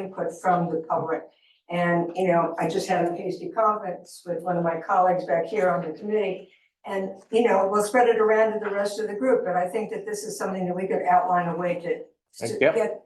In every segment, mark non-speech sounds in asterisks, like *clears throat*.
input from the public. And, you know, I just had a hasty conference with one of my colleagues back here on the committee. And, you know, we'll spread it around to the rest of the group, but I think that this is something that we could outline a way to to Yep. get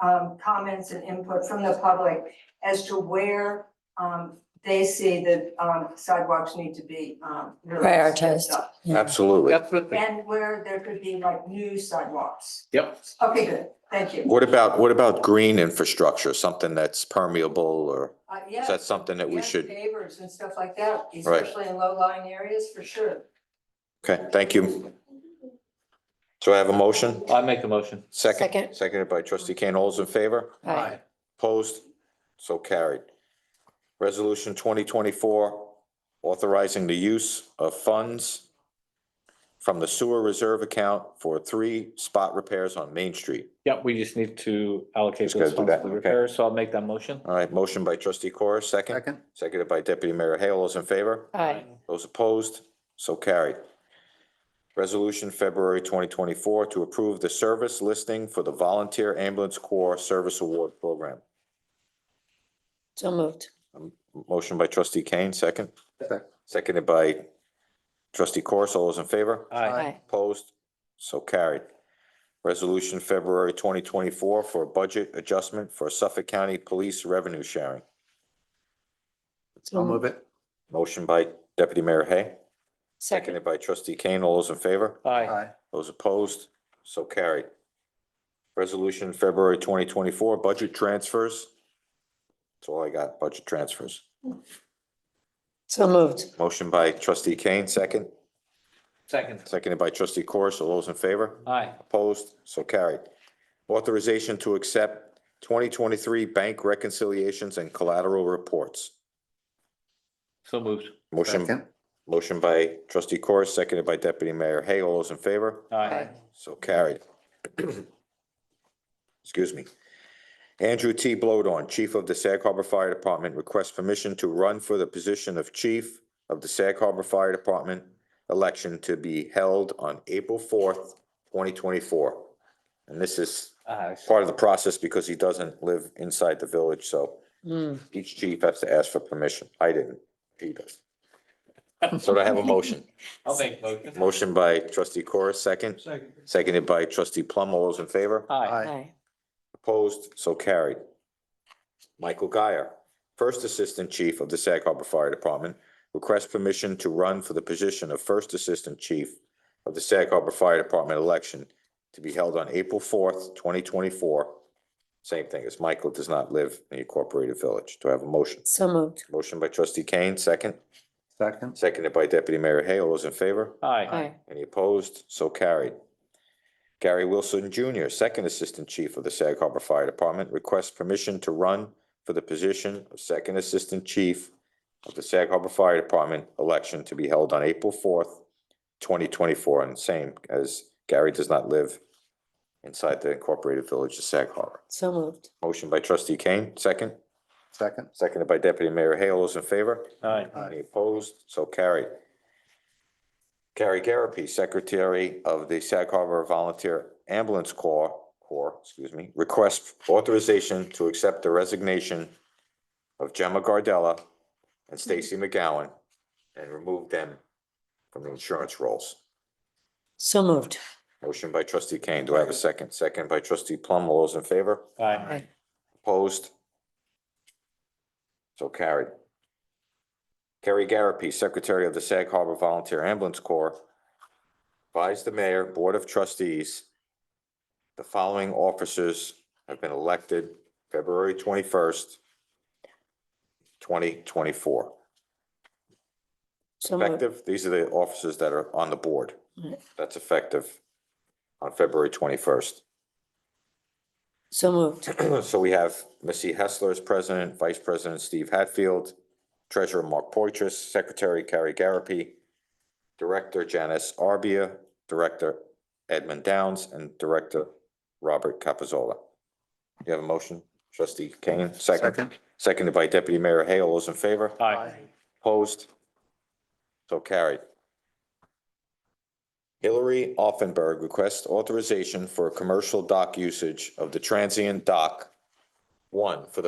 um comments and input from the public as to where um they see that um sidewalks need to be um really Prioritized. stepped up. Absolutely. Definitely. And where there could be like new sidewalks. Yep. Okay, good, thank you. What about, what about green infrastructure, something that's permeable or Uh, is yeah, that something that we yeah, should? pavers and stuff like that, especially in low lying areas, for sure. Okay, thank you. So I have a motion, I make a motion. second, Second. seconded by trustee Kane. All's in favor? Aye. Opposed? So carried. Resolution twenty twenty-four, authorizing the use of funds from the sewer reserve account for three spot repairs on Main Street. Yep, we just need to allocate Just those gotta do funds that, for the okay. repairs, so I'll make that motion. All right, motion by trustee Corr, second, Second, seconded by deputy mayor Hale. All's in favor? Aye. Those opposed, so carried. Resolution February twenty twenty-four to approve the service listing for the Volunteer Ambulance Corps Service Award Program. So moved. Motion by trustee Kane, second. Second. Seconded by trustee Corus. All those in favor? Aye. Aye. Opposed? So carried. Resolution February twenty twenty-four for a budget adjustment for Suffolk County Police Revenue Sharing. So I'll moved. move it. Motion by deputy mayor Hay, Second. seconded by trustee Kane. All those in favor? Aye. Aye. Those opposed, so carried. Resolution February twenty twenty-four, budget transfers. That's all I got, budget transfers. So moved. Motion by trustee Kane, second, Second. seconded by trustee Corus. All those in favor? Aye. Opposed, so carried. Authorization to accept twenty twenty-three bank reconciliations and collateral reports. So moved. Motion, Second, motion by trustee Corus, seconded by deputy mayor Hay. All those in favor? Aye. So carried. Excuse me. Andrew T. Blodon, Chief of the Sag Harbor Fire Department, requests permission to run for the position of Chief of the Sag Harbor Fire Department election to be held on April fourth, twenty twenty-four. And this is Aye. part of the process because he doesn't live inside the village, so Hmm. each chief has to ask for permission. I didn't, he does. So do I have a motion? I'll make motion. Motion by trustee Corus, second, Second. seconded by trustee Plum. All those in favor? Aye. aye, Aye. Opposed, so carried. Michael Guyer, First Assistant Chief of the Sag Harbor Fire Department, requests permission to run for the position of First Assistant Chief of the Sag Harbor Fire Department election to be held on April fourth, twenty twenty-four. Same thing as Michael does not live in the Incorporated Village. Do I have a motion? So moved. Motion by trustee Kane, second, second, seconded by deputy mayor Hay. All those in favor? Aye. Aye. Any opposed? So carried. Gary Wilson Junior, Second Assistant Chief of the Sag Harbor Fire Department, requests permission to run for the position of Second Assistant Chief of the Sag Harbor Fire Department election to be held on April fourth, twenty twenty-four, and same as Gary does not live inside the incorporated village of Sag Harbor. So moved. Motion by trustee Kane, second, second, seconded by deputy mayor Hale. All Those in favor? Aye. Aye. Any opposed? So carried. Carrie Garapi, Secretary of the Sag Harbor Volunteer Ambulance Corps, Corps, excuse me, requests authorization to accept the resignation of Gemma Gardella and Stacy McGowan and remove them from the insurance rolls. So moved. Motion by trustee Kane. Do I have a second? Second by trustee Plum. All those in favor? Aye. Opposed? So carried. Kerry Garapi, Secretary of the Sag Harbor Volunteer Ambulance Corps, advised the mayor, Board of Trustees, the following officers have been elected February twenty-first, twenty twenty-four. So moved. Effective, these are the officers that are on the board. Right. That's effective on February twenty-first. So moved. *clears throat* So we have Missy Hessler as president, vice president Steve Hatfield, treasurer Mark Poitras, secretary Carrie Garapi, director Janice Arbia, director Edmund Downs, and director Robert Capazola. You have a motion, trustee Kane, second, second. seconded by deputy mayor Hale. All those in favor? Aye. Opposed? So carried. Hillary Offenberg requests authorization for commercial dock usage of the transient dock. One, for the